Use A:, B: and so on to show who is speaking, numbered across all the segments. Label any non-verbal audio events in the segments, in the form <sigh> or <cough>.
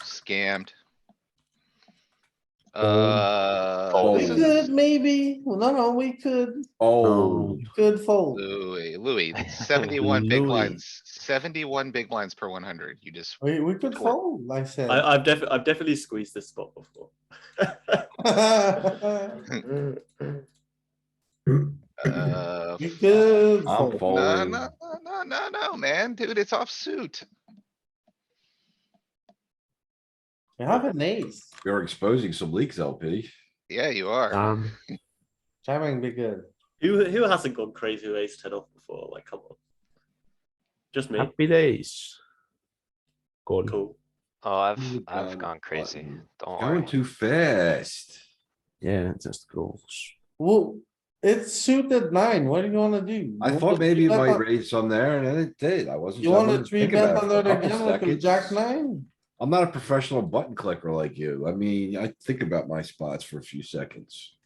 A: scammed.
B: Fold.
A: Uh, this
B: Fold.
A: is
C: Could maybe, Well, no, no, we could,
B: Oh,
C: could fold.
A: Louis,
B: <laughs>
A: Louis, seventy-one big
D: Louis.
A: blinds, seventy-one big blinds per one hundred. You just,
C: We, we could
A: Cool.
C: fold, I said.
D: I, I've definitely, I've definitely squeezed this spot
C: <laughs>
D: before.
A: uh,
C: You could
B: I'm
C: fold.
B: fold.
A: no,
B: Folding.
A: no, no, no, no, no, man, dude, it's offsuit.
C: You have an ace,
B: you're exposing some leaks, LP.
A: Yeah, you are.
E: Um,
C: jamming be good.
D: Who who hasn't gone crazy with ace ten off before? Like, come on. Just me.
E: happy days. Call.
D: Cool.
F: Oh, I've,
B: Mm,
F: I've
B: um,
F: gone crazy.
B: button.
F: Don't
B: Going
F: worry.
B: too fast.
E: Yeah, just goes.
C: Well, it's suited nine, what do you wanna do?
B: I
C: You
B: thought
C: wanna
B: maybe it
C: three-bet
B: might
C: on-
B: raise some there and then it did. I wasn't.
C: You
B: sure. I
C: wanna
B: wasn't
C: three
B: thinking
C: bet
B: about it for
C: under
B: a
C: the
B: couple
C: gun with a
B: seconds.
C: jack nine?
B: I'm not a professional button clicker like you. I mean, I think about my spots for a few seconds.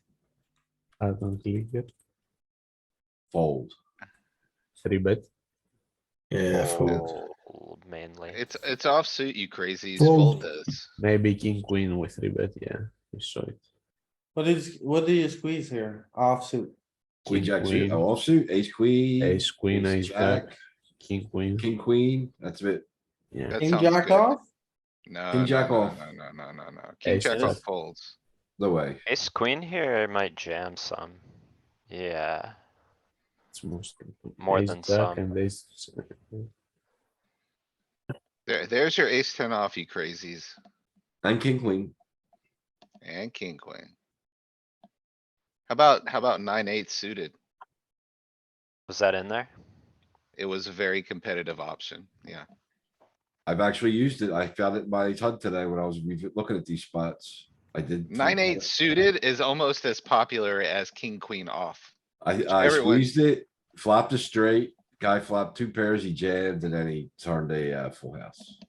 E: I don't believe it.
B: Fold.
E: Three bet.
G: Yeah, fold.
F: Fold mainly.
A: It's, it's offsuit, you crazies,
G: Fold.
A: fold this.
E: Maybe king queen with three bet. Yeah, we saw it.
C: What is, what do you squeeze here? Offsuit.
B: Queen,
E: King,
B: jack
E: queen.
B: suit, oh, offsuit, ace, queen.
E: Ace queen, ace
B: jack,
E: jack, king queen.
B: King, queen, that's it.
E: Yeah,
A: That
C: King
A: sounds
C: jack
A: good.
C: off?
A: No.
B: King
A: no,
B: jack
A: no,
B: off.
A: No, no, no, no, no. King
E: Ace
A: jack
D: jack.
A: off folds.
B: No way.
F: Ace queen here might jam some. Yeah,
E: it's mostly
F: More
E: ace
F: than
E: jack
F: some.
E: And ace.
A: There, there's your ace ten off, you crazies,
B: And king, queen.
A: and king, queen. How about, how about nine, eight suited?
F: was that in there?
A: It was a very competitive option, yeah.
B: I've actually used it. I found it in my HUD today when I was revi- looking at these spots. I did. think
A: Nine,
B: about
A: eight
B: it.
A: suited is almost as popular as king, queen off. <laughs>
B: I, I
A: everyone-
B: squeezed it, flopped a straight, guy flopped two pairs, he jammed, and then he turned a uh, full house.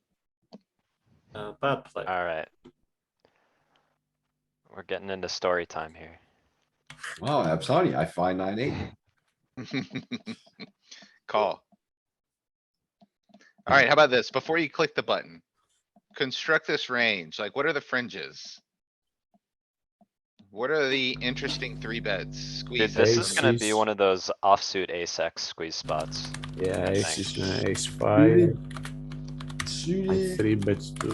D: Uh, bad play.
F: Alright. We're getting into story time here.
B: Wow, I'm sorry, I find nine, eight.
A: Call. Alright, how about this? Before you click the button. Construct this range, like what are the fringes? What are the interesting three beds?
F: Dude,
A: Squeeze
F: this is
A: this.
F: gonna be
E: Aces.
F: one of those offsuit ace X squeeze spots.
E: Yeah, ace is
F: Thanks.
E: ace five. I
B: Suited.
E: three bets to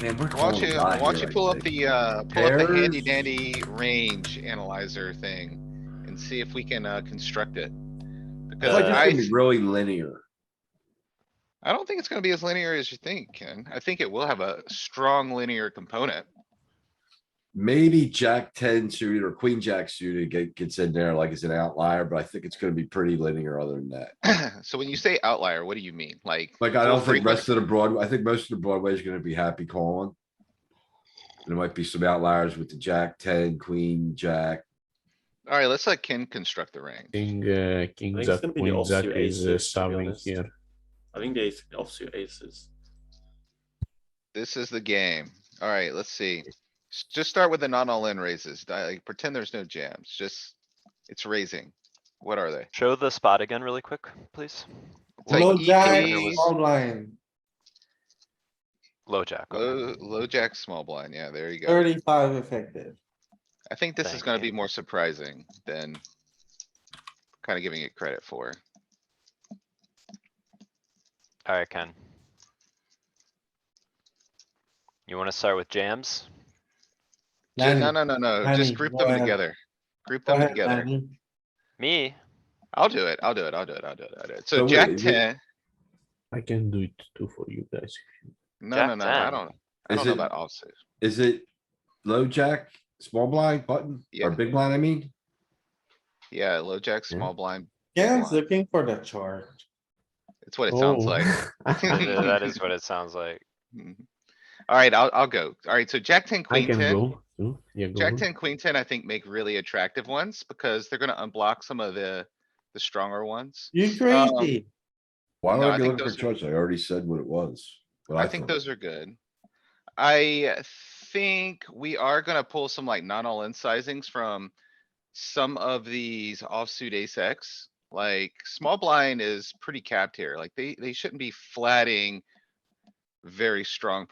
B: Man, we're
A: Why
B: calling
A: don't
B: it
A: you,
B: live
A: why don't
B: here,
A: you
B: I
A: pull up
B: think.
A: the, uh, pull up the handy
B: Pairs.
A: dandy range analyzer thing? And see if we can, uh, construct it.
B: It's
A: Because
B: like
A: I,
B: it's gonna be really linear.
A: I don't think it's gonna be as linear as you think, Ken. I think it will have a strong linear component. <clears throat>
B: Maybe jack ten suited or queen jack suited get, gets in there like it's an outlier, but I think it's gonna be pretty linear other than that.
A: So when you say outlier, what do you mean? Like?
B: Like, I
A: full
B: don't think
A: frequency?
B: rest of the Broadway, I think most of the Broadway is gonna be happy calling. There might be some outliers with the jack ten, queen, jack.
A: Alright, let's let Ken construct the range.
E: king, uh, king
D: it's
E: jack,
D: gonna be the
E: queen jack
D: offsuit
E: is uh,
D: aces, to be
E: shoving
D: honest.
E: here.
D: I think the ace offsuit aces.
A: This is the game. Alright, let's see. S- Just start with the non all in raises. Di- Like pretend there's no jams, just, it's raising. What are they?
F: Show the spot again really quick, please.
A: It's like E
C: Low jack,
A: EKs,
C: small blind,
F: Low jack. okay.
A: Low, low jack, small blind. Yeah, there you go.
C: thirty-five effective.
A: I think this is
F: Thank
A: gonna
F: you.
A: be more surprising than kinda giving it credit for.
F: Alright, Ken. You wanna start with jams?
A: Ju- No,
C: Danny,
A: no, no, no,
C: Danny,
A: just group
C: go
A: them
C: ahead.
A: together. Group
C: Go
A: them
C: ahead,
A: together.
C: Danny.
F: Me?
A: I'll do it. I'll do it. I'll do it. I'll do it. I'll do it.
B: So
A: So
B: wait,
A: jack
B: is it-
A: ten,
E: I can do it too for you guys.
A: no,
F: Jack
A: no, no, I
F: 10?
A: don't, I
B: Is
A: don't know
B: it-
A: about offsuit.
B: Is it low jack, small blind button
A: Yeah.
B: or big blind, I mean?
A: Yeah, low jack,
E: Yeah.
A: small blind.
C: Ken's
A: blind.
C: looking for the chart.
A: It's what it sounds
E: Oh.
A: like.
E: <laughs>
B: <laughs>
F: Yeah, That is what it sounds like.
A: Alright, I'll, I'll go. Alright, so jack ten,
E: I
A: queen
E: can
A: ten.
E: go too. Yeah, go.
A: Jack
E: on.
A: ten, queen ten, I think make really attractive ones because they're gonna unblock some of the, the stronger ones.
C: You crazy.
B: Why
A: No,
B: would
A: I
B: I be
A: think
B: looking for
A: those
B: choice? I already said what it was. what
A: I think
B: thought.
A: those are good. I think we are gonna pull some like not all in sizings from some of these offsuit ace X. Like small blind is pretty capped here. Like they, they shouldn't be flatting very strong